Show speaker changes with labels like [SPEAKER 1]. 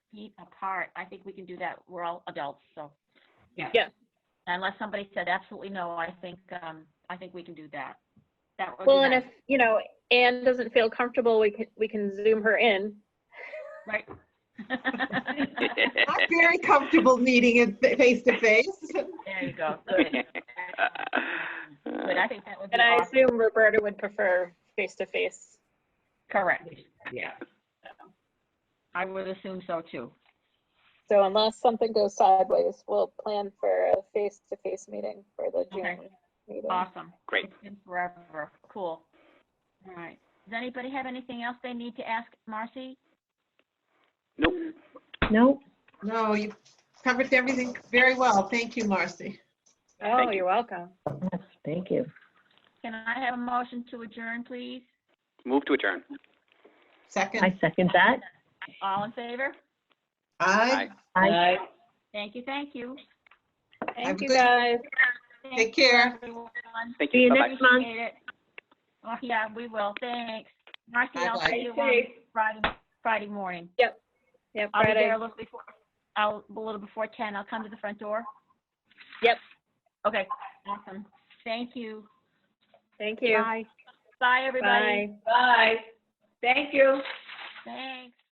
[SPEAKER 1] feet apart. I think we can do that. We're all adults, so.
[SPEAKER 2] Yeah.
[SPEAKER 1] Unless somebody said absolutely no, I think, um, I think we can do that. That would be
[SPEAKER 2] Well, and if,
[SPEAKER 1] nice.
[SPEAKER 2] you know, Anne doesn't feel comfortable, we can, we can zoom her in.
[SPEAKER 1] Right.
[SPEAKER 3] I'm very comfortable meeting it face to face.
[SPEAKER 1] There you go. Good. Good. I think that would be
[SPEAKER 2] And I
[SPEAKER 1] awesome.
[SPEAKER 2] assume Roberta would prefer face-to-face.
[SPEAKER 1] Correct.
[SPEAKER 3] Yeah.
[SPEAKER 1] I would assume so too.
[SPEAKER 2] So unless something goes sideways, we'll plan for a face-to-face meeting for the
[SPEAKER 1] Okay.
[SPEAKER 2] June meeting.
[SPEAKER 1] Awesome.
[SPEAKER 4] Great.
[SPEAKER 1] It's been forever. Cool. All right. Does anybody have anything else they need to ask Marcy?
[SPEAKER 4] Nope.
[SPEAKER 3] No, you covered everything very well. Thank you, Marcy.
[SPEAKER 2] Oh,
[SPEAKER 4] Thank you.
[SPEAKER 2] you're welcome.
[SPEAKER 5] Thank you.
[SPEAKER 1] Can I have a motion to adjourn, please?
[SPEAKER 4] Move to adjourn.
[SPEAKER 3] Second.
[SPEAKER 5] I second that.
[SPEAKER 1] All in favor?
[SPEAKER 3] Aye.
[SPEAKER 5] I
[SPEAKER 1] Thank you, thank you.
[SPEAKER 3] I'm
[SPEAKER 2] Thank you,
[SPEAKER 3] good.
[SPEAKER 2] guys.
[SPEAKER 1] Thank
[SPEAKER 3] Take care.
[SPEAKER 1] you, everyone.
[SPEAKER 4] Thank
[SPEAKER 5] See you
[SPEAKER 4] you. Bye-bye.
[SPEAKER 5] next month.
[SPEAKER 1] Appreciate it. Oh, yeah, we will, thanks. Marcy, I'll
[SPEAKER 3] Bye-bye.
[SPEAKER 1] see you on Friday, Friday morning.
[SPEAKER 2] Yeah,
[SPEAKER 1] I'll be there
[SPEAKER 2] Friday.
[SPEAKER 1] a little before, I'll, a little before 10, I'll come to the front door.
[SPEAKER 2] Yep.
[SPEAKER 1] Okay, awesome. Thank you.
[SPEAKER 2] Thank you.
[SPEAKER 1] Bye, everybody.
[SPEAKER 2] Bye.
[SPEAKER 6] Bye. Thank you.
[SPEAKER 1] Thanks.